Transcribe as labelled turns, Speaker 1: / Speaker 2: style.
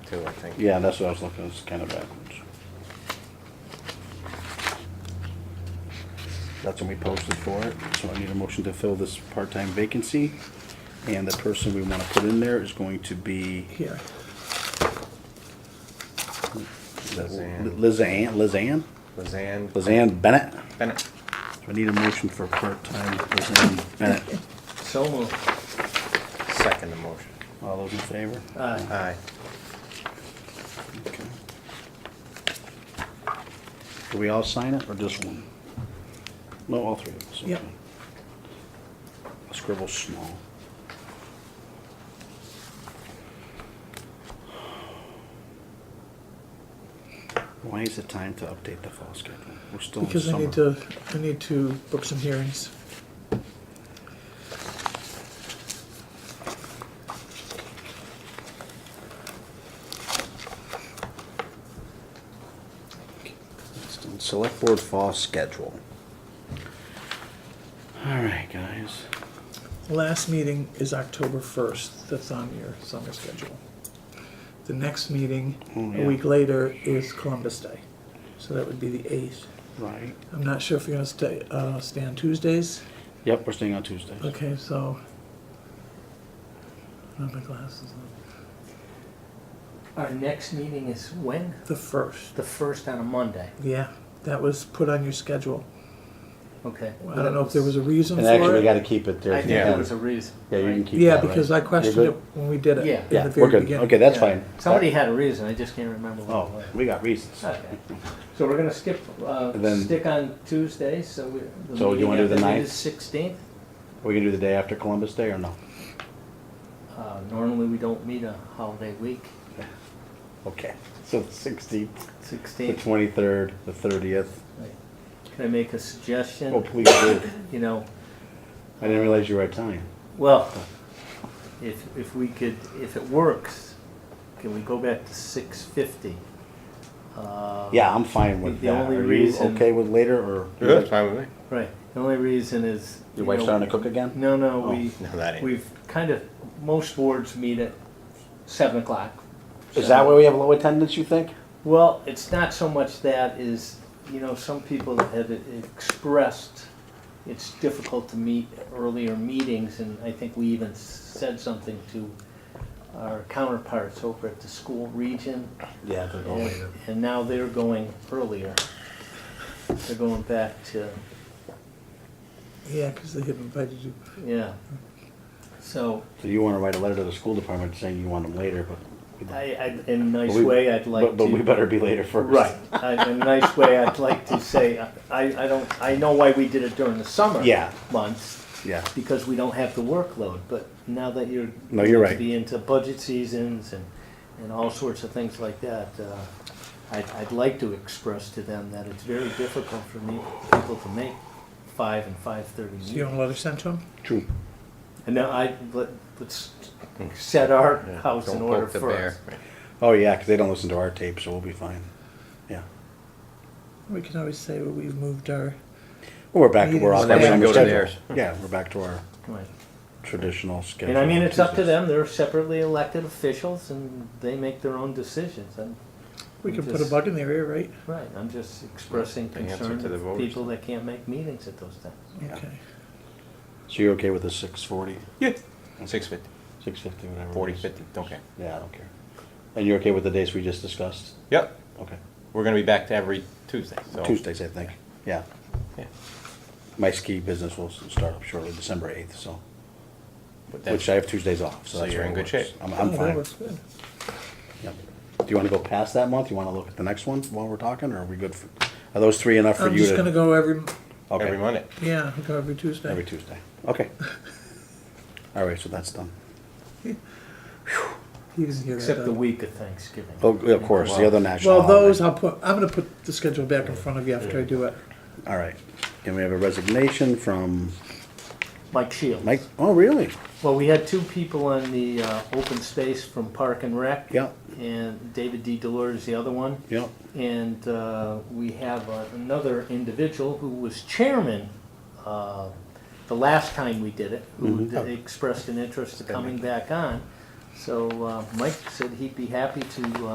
Speaker 1: too, I think.
Speaker 2: Yeah, that's what I was looking, it's kind of backwards. That's when we posted for it, so I need a motion to fill this part-time vacancy. And the person we wanna put in there is going to be
Speaker 3: Here,
Speaker 1: Lizanne.
Speaker 2: Lizanne, Lizanne?
Speaker 1: Lizanne
Speaker 2: Lizanne Bennett?
Speaker 1: Bennett.
Speaker 2: So I need a motion for part-time Lizanne Bennett.
Speaker 3: so moved.
Speaker 1: Second the motion.
Speaker 2: All those in favor?
Speaker 3: Aye.
Speaker 1: Aye.
Speaker 2: Okay. Do we all sign it, or just one? No, all three of us.
Speaker 3: Yep.
Speaker 2: okay. I'll Scribble small. Why is it time to update the fall schedule? We're still in summer.
Speaker 3: Because I need to, I need to book some hearings.
Speaker 2: Select board fall schedule. All right, guys.
Speaker 3: Last meeting is October first, that's on your summer schedule. The next meeting,
Speaker 2: Oh,
Speaker 3: a
Speaker 2: yeah.
Speaker 3: week later, is Columbus Day, so that would be the eighth.
Speaker 2: Right.
Speaker 3: I'm not sure if you're gonna stay, uh, stay on Tuesdays,
Speaker 2: Yep, we're staying on Tuesdays.
Speaker 3: okay, so. I don't have my glasses on.
Speaker 4: Our next meeting is when?
Speaker 3: The first,
Speaker 4: The first on a Monday,
Speaker 3: yeah, that was put on your schedule.
Speaker 4: okay.
Speaker 3: I don't know if there was a reason for
Speaker 2: And
Speaker 3: it.
Speaker 2: actually, we gotta keep it there.
Speaker 4: I think
Speaker 1: Yeah.
Speaker 4: that was a reason.
Speaker 2: Yeah, you can
Speaker 4: right?
Speaker 2: keep that.
Speaker 3: Yeah,
Speaker 2: right?
Speaker 3: because I
Speaker 2: You're
Speaker 3: questioned
Speaker 2: good?
Speaker 3: it when we did it in
Speaker 4: Yeah.
Speaker 2: Yeah,
Speaker 3: the
Speaker 2: we're
Speaker 3: very
Speaker 2: good.
Speaker 3: beginning.
Speaker 2: Okay, that's
Speaker 4: Yeah.
Speaker 2: fine.
Speaker 4: Somebody had a reason, I just can't remember what
Speaker 2: Oh,
Speaker 4: it was.
Speaker 2: we got reasons.
Speaker 4: Okay. So we're gonna skip, uh,
Speaker 2: And then-
Speaker 4: stick on Tuesday, so we. the
Speaker 2: So you
Speaker 4: meeting
Speaker 2: wanna do the
Speaker 4: after that
Speaker 2: ninth?
Speaker 4: Is sixteenth,
Speaker 2: We can do the day after Columbus Day or no?
Speaker 4: uh, normally we don't meet a holiday week,
Speaker 2: Okay, so the sixteenth, the
Speaker 4: sixteenth.
Speaker 2: twenty-third, the thirtieth.
Speaker 4: Can I make a
Speaker 2: Oh,
Speaker 4: suggestion,
Speaker 2: please do.
Speaker 4: you know,
Speaker 2: I didn't realize you were Italian.
Speaker 4: well, if, if we could, if it works, can we go back to six fifty? Um,
Speaker 2: Yeah, I'm fine with
Speaker 4: Uh, The
Speaker 2: that.
Speaker 4: only
Speaker 2: Are you
Speaker 4: reason-
Speaker 2: okay with later or?
Speaker 1: That's fine with me.
Speaker 4: Right, the only reason is.
Speaker 2: Your
Speaker 4: you
Speaker 2: wife's
Speaker 4: know,
Speaker 2: starting to cook again?
Speaker 4: No, no,
Speaker 2: Oh,
Speaker 4: we,
Speaker 1: No, that ain't.
Speaker 4: we've kind of, most boards meet at seven o'clock.
Speaker 2: Is that why we have low attendance, you think?
Speaker 4: Well, it's not so much that is, you know, some people have expressed it's difficult to meet earlier meetings, and I think we even said something to our counterparts over at the school region.
Speaker 2: Yeah, they're going
Speaker 4: And
Speaker 2: later.
Speaker 4: and now they're going earlier. They're going back to,
Speaker 3: Yeah, because they had invited you.
Speaker 4: yeah. So,
Speaker 2: So you wanna write a letter to the school department saying you want them later, but. we don't.
Speaker 4: I, I, in a nice
Speaker 2: But we-
Speaker 4: way, I'd like to.
Speaker 2: But, but we better be later first.
Speaker 4: Right, I- in a nice way, I'd like to say, I, I don't, I know why we did it during the summer.
Speaker 2: Yeah.
Speaker 4: Months,
Speaker 2: Yeah.
Speaker 4: because we don't have the workload, but now that you're.
Speaker 2: No, you're right.
Speaker 4: going to Be into budget seasons and, and all sorts of things like that, uh, I'd, I'd like to express to them that it's very difficult for me, people to make five and five-thirty
Speaker 3: So you
Speaker 4: meetings.
Speaker 3: want a letter sent to them?
Speaker 2: True.
Speaker 4: And now I, let, let's set our house in
Speaker 1: Don't
Speaker 4: order
Speaker 1: poke the
Speaker 4: first.
Speaker 1: bear.
Speaker 2: Oh, yeah, cause they don't listen to our tape, so we'll be fine. Yeah.
Speaker 3: We can always say well, we've moved our,
Speaker 2: Well, we're back, we're
Speaker 3: Meetings.
Speaker 2: on.
Speaker 3: Then we
Speaker 2: we're
Speaker 3: can
Speaker 2: on the
Speaker 1: go to
Speaker 2: schedule.
Speaker 1: theirs.
Speaker 2: Yeah, we're back to our
Speaker 4: Right.
Speaker 2: traditional schedule.
Speaker 4: And I mean, it's up to
Speaker 2: Tuesdays.
Speaker 4: them, they're separately elected officials and they make their own decisions, and,
Speaker 3: we can put a
Speaker 4: Just-
Speaker 3: bug in the area, right?
Speaker 4: right, I'm just expressing
Speaker 1: The answer
Speaker 4: concern
Speaker 1: to the
Speaker 4: of
Speaker 1: voters.
Speaker 4: people that can't make meetings at those times.
Speaker 2: Yeah.
Speaker 3: Okay.
Speaker 2: So you're okay with the six forty,
Speaker 1: Yeah. Six fifty,
Speaker 2: six fifty, whatever? it
Speaker 1: forty,
Speaker 2: is?
Speaker 1: fifty, okay.
Speaker 2: Yeah, I don't care. And you're okay with the dates we just discussed?
Speaker 1: Yep,
Speaker 2: Okay.
Speaker 1: we're gonna be back to every Tuesday, so.
Speaker 2: Tuesdays, I think. Yeah.
Speaker 1: Yeah.
Speaker 2: My ski business will s- start up shortly, December eighth, so,
Speaker 1: But that's-
Speaker 2: which I have Tuesdays off, so.
Speaker 1: So
Speaker 2: that's
Speaker 1: you're
Speaker 2: what
Speaker 1: in
Speaker 2: it
Speaker 1: good
Speaker 2: works.
Speaker 1: shape.
Speaker 2: I'm,
Speaker 3: Oh,
Speaker 2: I'm
Speaker 3: that
Speaker 2: fine.
Speaker 3: works good.
Speaker 2: Yep. Do you wanna go past that month? You wanna look at the next one while we're talking, or are we good? for- Are those three enough for
Speaker 3: I'm
Speaker 2: you to?
Speaker 3: just gonna go every,
Speaker 2: Okay.
Speaker 1: Every Monday.
Speaker 3: yeah, I'll go every Tuesday.
Speaker 2: Every Tuesday. Okay. All right, so that's done.
Speaker 3: He doesn't hear that,
Speaker 4: Except the
Speaker 3: though.
Speaker 4: week of Thanksgiving.
Speaker 2: Oh, Of course, the other national.
Speaker 3: Well,
Speaker 2: holiday.
Speaker 3: those I'll put, I'm gonna put the schedule back in front of you after I do it.
Speaker 2: All right. And we have a resignation from
Speaker 4: Mike Shields.
Speaker 2: Mike. Oh, really?
Speaker 4: Well, we had two people on the, uh, open space from Park and Rec.
Speaker 2: Yeah,
Speaker 4: And David D. Delore is the other one.
Speaker 2: yeah.
Speaker 4: And uh, we have uh, another individual who was chairman uh, the last time we did it, who
Speaker 2: Mhm.
Speaker 4: expressed an interest in coming back on. So uh, Mike said he'd be happy to uh,